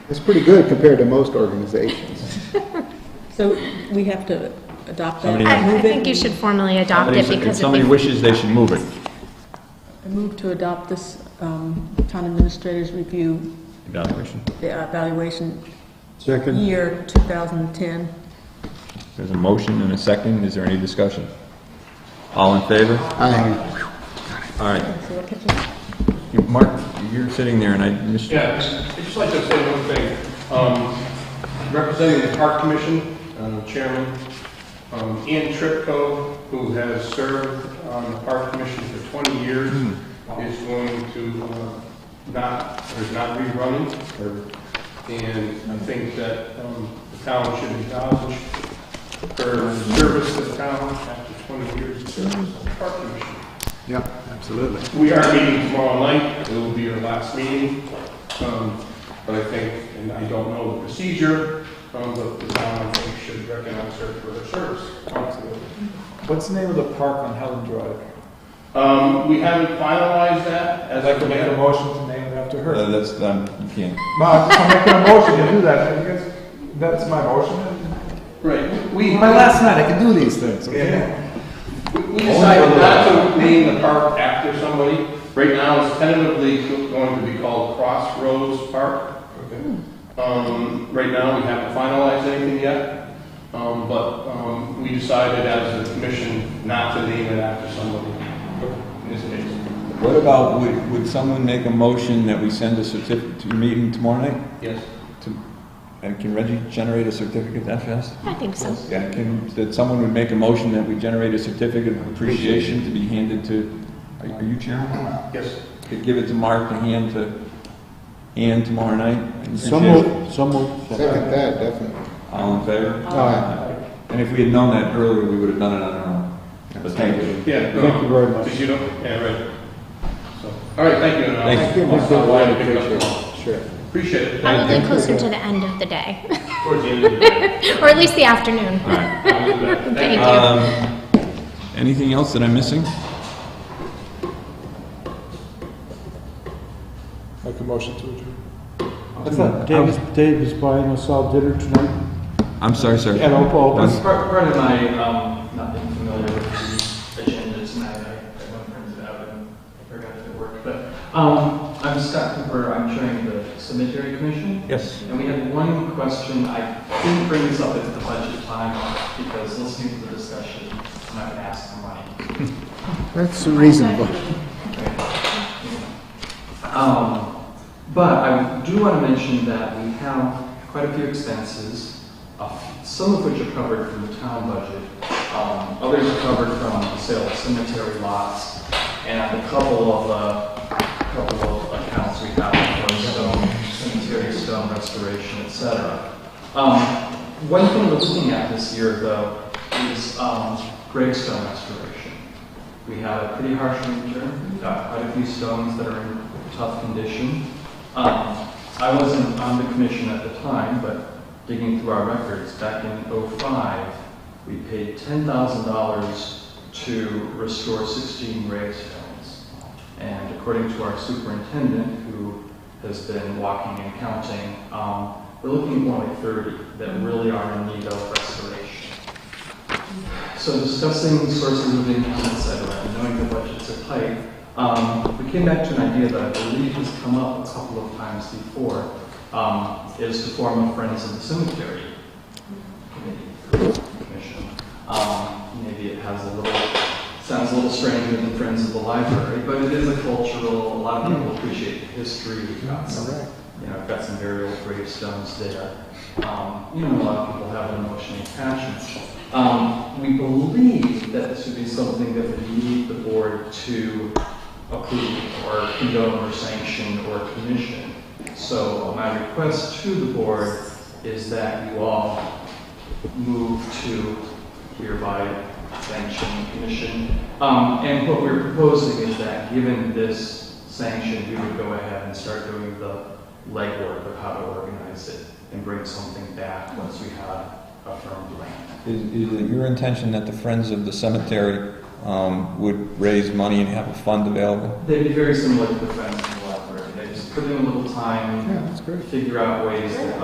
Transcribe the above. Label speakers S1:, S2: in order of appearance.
S1: It's pretty good compared to most organizations.
S2: So we have to adopt that?
S3: Somebody-
S4: I, I
S2: Move
S4: think
S2: it?
S4: you should formally adopt
S3: Somebody-
S4: it because
S3: If
S4: if we
S3: somebody wishes, they should move it.
S2: I Move to adopt this um, town administrator's review
S3: Evaluation.
S2: the evaluation
S5: Second,
S2: year 2010.
S3: There's a motion and a second. Is there any discussion? All in favor?
S1: Aye.
S3: All right. You- Mark, you're sitting there and I missed.
S6: Yeah, I'd just like to say one thing. Um, Representing the Park Commission, uh, Chairman, um, Ian Tripko, who has served on the Park Commission for 20 years, is going to uh, not, or is not rerunning. And I think that um, the town should acknowledge her service to the town after 20 years of service on the Park Commission.
S1: Yeah, absolutely.
S6: We are meeting tomorrow night, it will be our last meeting, um, but I think, and I don't know the procedure, um, but the town, I think, should recognize her for her service.
S7: What's the name of the park on Helen Drive?
S6: Um, we haven't finalized that as
S7: I'd
S6: I
S7: like to
S6: can
S7: make a
S6: make
S7: motion to name it after her.
S3: Uh, That's, um, you can't.
S7: Ma, I'm just making a motion to do that, I guess, that's my motion.
S6: Right, we,
S5: my last night, I can do these things, okay?
S7: Yeah.
S6: we decided not to name the park after somebody. Right now, it's tentatively going to be called Crossroads Park. Um, right now, we haven't finalized anything yet, um, but, um, we decided as a commission not to name it after somebody, in this case.
S3: What about, would, would someone make a motion that we send a certificate to your meeting tomorrow night?
S6: Yes.
S3: To- And can Reggie generate a certificate that fast?
S4: I think so.
S3: Yeah, can, that someone would make a motion that we generate a certificate of appreciation to be handed to, are are you chairman?
S6: Yes.
S3: To give it to Mark to hand to Ann tomorrow night?
S5: Some move, some move.
S1: Second that, definitely.
S3: All in favor?
S1: Aye.
S3: And if we had known that earlier, we would have done it on our own. But thank you.
S6: Yeah. no,
S5: Thank you very much.
S6: Did you don't, yeah, right. So, All right, thank you. and I'll-
S3: Thank
S1: Give us a
S6: I'll
S1: wider
S6: pick up tomorrow.
S1: picture. Sure.
S6: Appreciate it.
S4: Probably
S3: Thank you.
S4: closer to the end of the day,
S6: Towards the end of the day.
S4: or at least the afternoon.
S3: All right.
S6: I'll do that.
S4: Thank you.
S3: Um, Anything else that I'm missing?
S7: Make a motion to adjourn.
S5: What's that? Dave is, Dave is buying us all dinner tonight
S3: I'm sorry, sir.
S5: at Opa Opus.
S8: Part, part of my, um, not being familiar with the agendas, and I, I went printed out and I forgot if it worked, but, um, I'm Scott Cooper, I'm chairing the cemetery commission,
S3: Yes.
S8: and we had one question, I didn't bring this up at the budget time, because listening to the discussion, I'm not gonna ask for money.
S1: That's reasonable.
S8: Um, But I do want to mention that we have quite a few expenses, uh, some of which are covered from the town budget, um, others are covered from the sale of cemetery lots, and a couple of, uh, couple of accounts we have for stone, cemetery stone restoration, et cetera. Um, One thing we're looking at this year, though, is um, gravestone restoration. We had a pretty harsh winter, We got quite a few stones that are in tough condition. Um, I wasn't on the commission at the time, but digging through our records, back in '05, we paid $10,000 to restore 16 gravestones. And according to our superintendent, who has been walking and counting, um, we're looking at more like 30 that really are in need of restoration. So discussing sources of income, et cetera, and knowing the budgets are tight, um, we came back to an idea that I believe has come up a couple of times before, um, is to form a Friends of the Cemetery Committee, Commission. Um, maybe it has a little, sounds a little stranger than Friends of the Library, but it is a cultural, a lot of people appreciate the history. We've got some, you know, I've got some burial gravestones there. Um, you know, a lot of people have an emotional attachment. Um, we believe that this would be something that would need the board to approve or condone or sanction or commission. So my request to the board is that you all move to hereby sanction commission. Um, and what we're proposing is that, given this sanction, we would go ahead and start doing the legwork of how to organize it and bring something back once we have a firm plan.
S3: Is, is it your intention that the Friends of the Cemetery, um, would raise money and have a fund available?
S8: They'd be very similar to the friends in the library, they just give them a little time,
S1: Yeah, that's great.
S8: figure out ways that